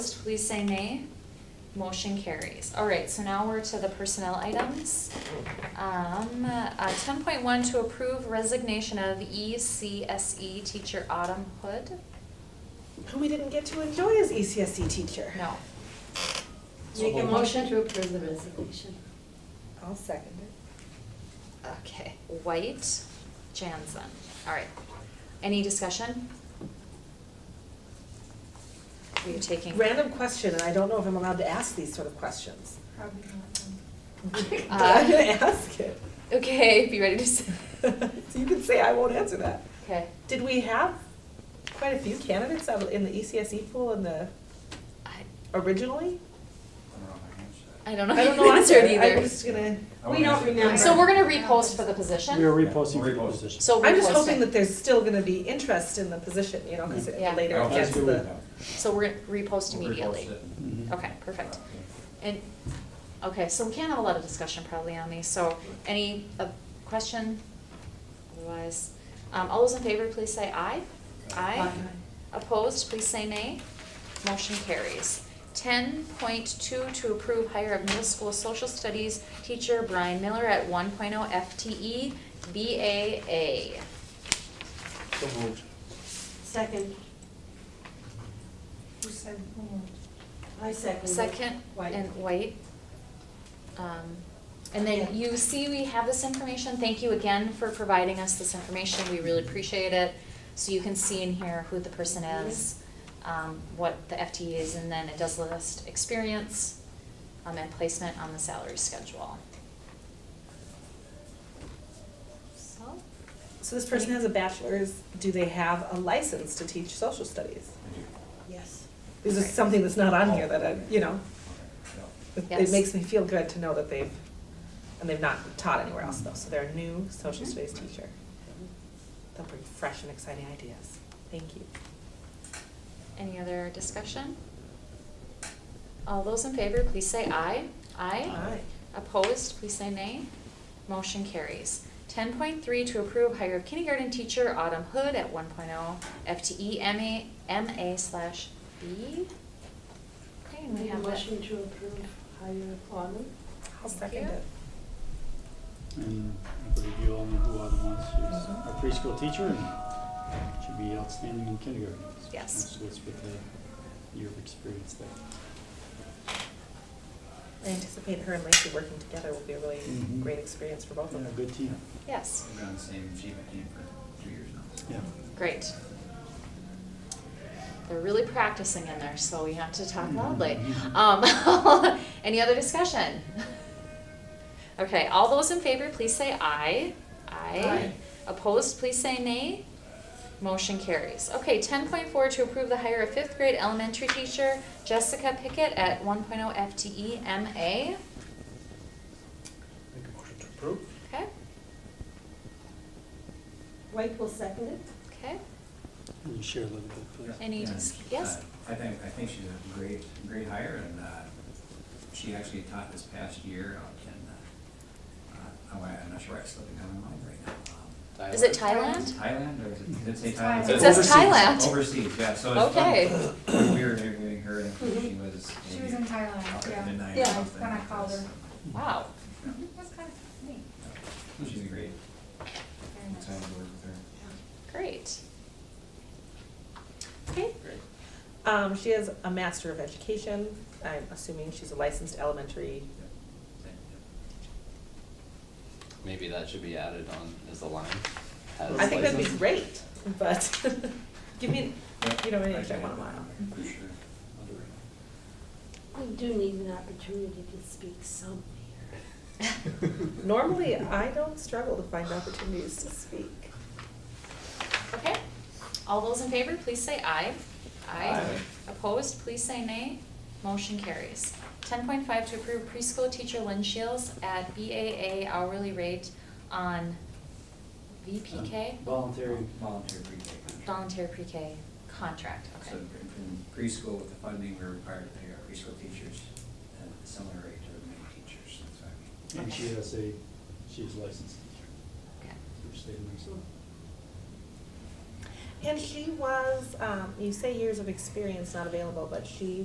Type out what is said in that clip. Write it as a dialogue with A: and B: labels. A: Opposed, please say nay. Motion carries. All right, so now we're to the personnel items. Um, uh, ten point one to approve resignation of E ECSE E teacher Autumn Hood.
B: Who we didn't get to enjoy as E ECSC teacher.
A: No,
C: Make a motion to approve the resignation.
B: I'll second it.
A: okay, White Jansen. All right. Any discussion? Are you taking?
B: Random question, and I don't know if I'm allowed to ask these sort of questions.
C: Probably
B: But I'm gonna ask it.
A: Okay, be ready to say.
B: So you can say I won't answer that.
A: Okay.
B: Did we have quite a few candidates out in the E ECSE pool in the,
A: I,
B: originally?
A: I don't know.
B: I don't
A: the
B: know
A: answer
B: either.
A: either.
B: I'm just gonna,
C: We don't remember.
A: So we're gonna repost for the position?
D: We are reposting for the
E: Repost.
D: position.
A: So
B: I'm just
A: repost
B: hoping
A: it.
B: that there's still gonna be interest in the position, you know, because
A: Yeah.
B: later it
E: Okay.
B: gets
D: Let's do
B: the.
A: So we're gonna repost immediately.
D: Mhm.
A: Okay, perfect. And, okay, so we can't have a lot of discussion probably on these, so any uh, question? Otherwise, um, all those in favor, please say aye. Aye. Opposed, please say nay. Motion carries. Ten point two, to approve hire of middle school social studies teacher Brian Miller at one oh FTE BAA.
D: So moved.
C: Second. Who said who I second.
A: Second,
C: White.
A: and white. Um, And then
C: Yeah.
A: you see we have this information, thank you again for providing us this information, we really appreciate it. So you can see in here who the person is, um, what the FTE is, and then it does list experience um, and placement on the salary schedule. So,
B: So this person has a bachelor's, do they have a license to teach social studies?
C: Yes.
B: This is something that's not on here that I, you know, It-
A: Yes.
B: It makes me feel good to know that they've, and they've not taught anywhere else though, so they're a new social
A: Mhm.
B: studies teacher. They'll bring fresh and exciting ideas. Thank you.
A: any other discussion? All those in favor, please say aye. Aye? Opposed, please say nay. Motion carries. Ten point three, to approve hire of kindergarten teacher Autumn Hood at one oh FTE MA, MA slash B. Okay, and we
C: Make a
A: have that.
C: motion to approve higher employment.
B: I'll
A: Thank
B: second
A: you.
B: it.
D: And I believe you all know who Autumn was. She's a preschool teacher and should be outstanding in kindergarten.
A: Yes.
D: So it's with a year of experience there.
B: I anticipate her and Lacey working together will be a really
D: Mhm.
B: great experience for both of
D: Yeah,
B: them.
D: good team.
A: Yes,
E: We've been on the same achievement team for two years now.
D: Yeah.
A: great. They're really practicing in there, so we have to talk loudly. Um, any other discussion? Okay, all those in favor, please say aye.
C: Aye.
A: Opposed, please say nay. Motion carries. Okay, ten point four to approve the hire of fifth grade elementary teacher Jessica Pickett at one oh FTE MA.
F: Make a motion to approve.
A: Okay,
C: White will second it.
A: okay.
D: Can you share a little bit, please?
A: Any
E: Yeah,
A: dis-
E: uh,
A: yes?
E: I think, I think she's a great, great hire, and uh, she actually taught this past year out in, uh, uh, oh, I'm not sure, it's slipping out of my mind right now.
A: Is it Thailand?
E: Um, Thailand, or is it, did it say
C: Thailand.
E: Thailand?
A: It says
D: Overseas.
A: Thailand.
E: Overseas, yeah, so it's.
A: Okay.
E: fun. We were interviewing her, and she was.
G: Mm-hmm. She
E: maybe
G: was in Thailand,
E: out at
G: yeah.
E: midnight or
G: Yeah,
E: something
G: when I
E: like
G: called
E: this.
G: her.
A: Wow.
G: It was kind of neat.
E: She's a great,
G: Very nice.
E: excited to work with her.
A: Great. Okay,
B: Um, she has a master of education. I'm assuming she's a licensed elementary.
E: Yep. Same, yep.
H: Maybe that should be added on as a line. as
B: I think that'd be
H: license.
B: great, but give me,
E: Yep.
B: you know, any
E: I
B: extra
E: can
B: one
E: add
B: while.
E: that in there, For sure. I'll do it.
C: We do need an opportunity to speak somewhere.
B: Normally, I don't struggle to find opportunities to speak.
A: okay. All those in favor, please say aye.
E: Aye.
A: Opposed, please say nay. Motion carries. Ten point five to approve preschool teacher Lynn Shields at BAA hourly rate on VPK,
D: Uh, Um, Voluntary.
E: Volunteer pre-K contract.
A: voluntary pre-K contract,
E: So
A: okay.
E: in preschool with the funding, we're required to pay our preschool teachers at a similar rate to the main teachers, that's what I mean.
D: And she has a, she's licensed teacher.
A: Okay.
D: Through state of Minnesota.
B: And she was, um, you say years of experience not available, but she